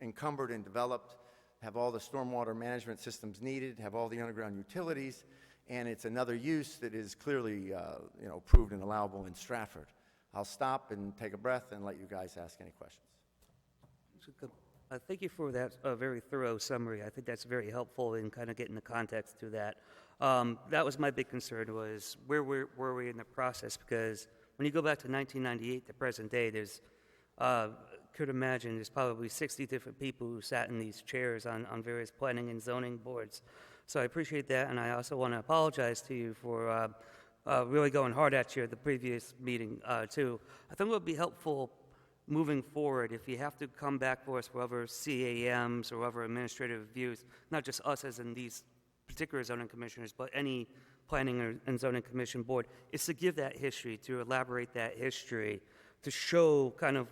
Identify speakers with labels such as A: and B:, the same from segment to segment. A: encumbered and developed, have all the stormwater management systems needed, have all the underground utilities, and it's another use that is clearly, uh, you know, approved and allowable in Stratford. I'll stop and take a breath and let you guys ask any questions.
B: So good. Uh, Thank you for that uh, very thorough summary. I think that's very helpful in kind of getting the context to that. Um, That was my big concern was where were were we in the process? Because when you go back to 1998, the present day, there's, uh, could imagine, there's probably 60 different people who sat in these chairs on on various planning and zoning boards. So I appreciate that, and I also want to apologize to you for uh, uh, really going hard at you at the previous meeting, uh, too. I think it would be helpful moving forward, if you have to come back for us for other CAMs or other administrative reviews, not just us as in these particular zoning commissioners, but any planning or- and zoning commission board, is to give that history, to elaborate that history, to show kind of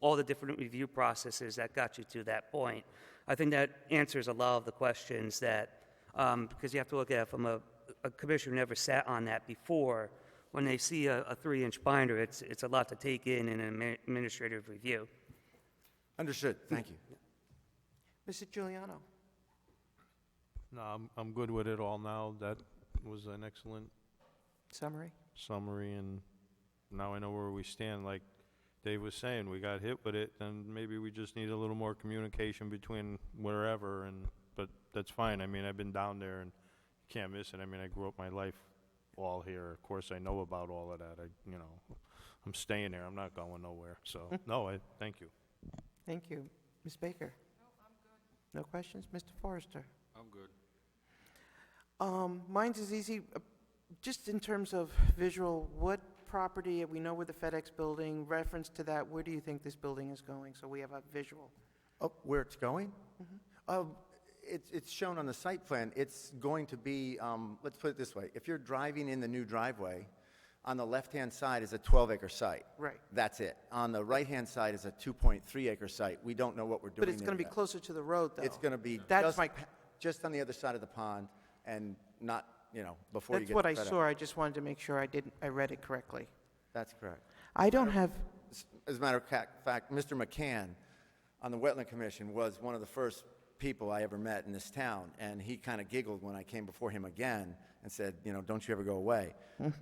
B: all the different review processes that got you to that point. I think that answers a lot of the questions that, um, because you have to look at it from a, a commissioner who never sat on that before. When they see a, a three-inch binder, it's, it's a lot to take in in an admi- administrative review.
A: Understood, thank you. Mr. Giuliano.
C: No, I'm, I'm good with it all now. That was an excellent
A: Summary?
C: summary, and now I know where we stand. Like Dave was saying, we got hit with it, then maybe we just need a little more communication between wherever, and, but that's fine. I mean, I've been down there, and you can't miss it. I mean, I grew up my life all here. Of course, I know about all of that. I, you know, I'm staying there. I'm not going nowhere. So, no, I, thank you.
D: Thank you. Ms. Baker? No, I'm good. No questions? Mr. Forrester?
E: I'm good.
D: Um, Mine's is easy, uh, just in terms of visual, what property, uh, we know where the FedEx building, reference to that, where do you think this building is going? So we have a visual.
A: Oh, where it's going?
D: Mm-hmm.
A: Uh, It's, it's shown on the site plan. It's going to be, um, let's put it this way. If you're driving in the new driveway, on the left-hand side is a 12-acre site.
D: Right.
A: That's it. On the right-hand side is a 2.3-acre site. We don't know what we're doing
D: But it's
A: there
D: going to be
A: yet.
D: closer to the road, though.
A: It's going to be
D: That's
A: just,
D: my,
A: pa- just on the other side of the pond and not, you know, before you
D: that's
A: get
D: what I
A: to FedEx.
D: saw. I just wanted to make sure I didn't, I read it correctly.
A: That's correct.
D: I don't have,
A: S- As a matter of ca- fact, Mr. McCann on the Wetland Commission was one of the first people I ever met in this town, and he kind of giggled when I came before him again and said, you know, don't you ever go away.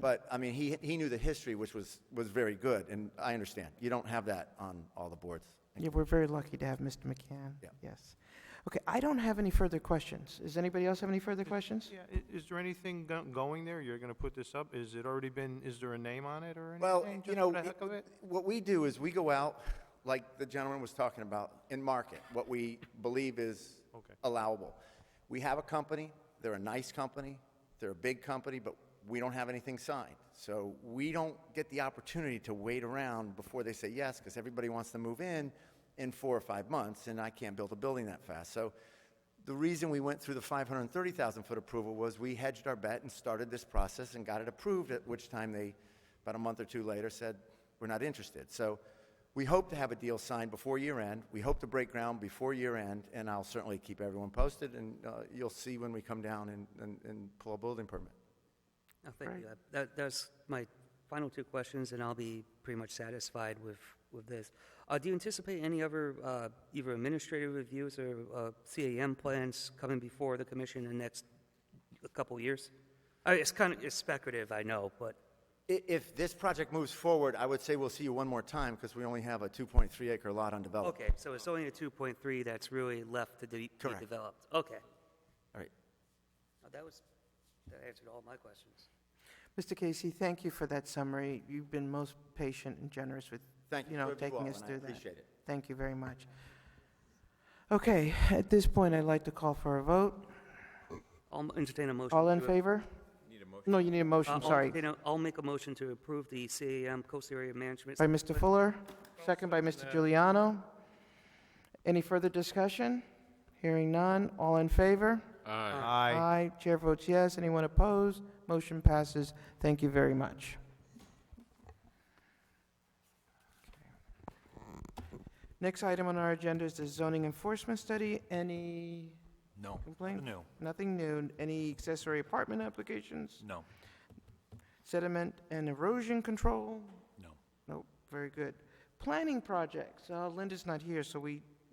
A: But, I mean, he, he knew the history, which was, was very good, and I understand. You don't have that on all the boards.
D: yeah, we're very lucky to have Mr. McCann.
A: Yeah.
D: Yes. Okay, I don't have any further questions. Does anybody else have any further questions?
C: Yeah, is there anything going there? You're gonna put this up? Is it already been, is there a name on it or anything?
A: Well, you know, it- what we do is we go out, like the gentleman was talking about, and market what we believe is
C: Okay.
A: allowable. We have a company, they're a nice company, they're a big company, but we don't have anything signed. So we don't get the opportunity to wait around before they say yes, because everybody wants to move in in four or five months, and I can't build a building that fast. So the reason we went through the 530,000 foot approval was we hedged our bet and started this process and got it approved, at which time they, about a month or two later, said, we're not interested. So we hope to have a deal signed before year end. We hope to break ground before year end, and I'll certainly keep everyone posted, and uh, you'll see when we come down and, and, and pull a building permit.
B: No, thank you. That, that's my final two questions, and I'll be pretty much satisfied with, with this. Uh, do you anticipate any other, uh, either administrative reviews or, uh, CAM plans coming before the commission in the next couple of years? Uh, it's kind of, it's speculative, I know, but.
A: I- If this project moves forward, I would say we'll see you one more time, because we only have a 2.3 acre lot
D: Oh.
A: undeveloped.
B: Okay, so it's only a 2.3 that's really left to de- be
A: Correct.
B: developed? Okay.
A: All right.
B: Now, That was, that answered all my questions.
D: Mr. Casey, thank you for that summary. You've been most patient and generous with,
A: Thank you
D: you know,
A: to you all,
D: taking us
A: and I
D: through that.
A: appreciate it.
D: Thank you very much. Okay, at this point, I'd like to call for a vote.
B: I'll entertain a motion.
D: All in
B: to-
D: favor? Need a motion. No, you need a
B: Uh,
D: motion,
B: I'll
D: sorry.
B: entertain a- I'll make a motion to approve the CAM Coast Area Management.
D: By Mr. Fuller, second by Mr. Giuliano. Any further discussion? Hearing none, all in favor?
E: Aye.
C: Aye.
D: Chair votes yes. Anyone opposed? Motion passes. Thank you very much. Next item on our agenda is the zoning enforcement study. Any
E: No.
D: complaints?
E: No.
D: Nothing new. Any accessory apartment applications?
E: No.
D: Sediment and erosion control?
E: No.
D: Nope, very good. Planning projects. Uh, Linda's not here, so we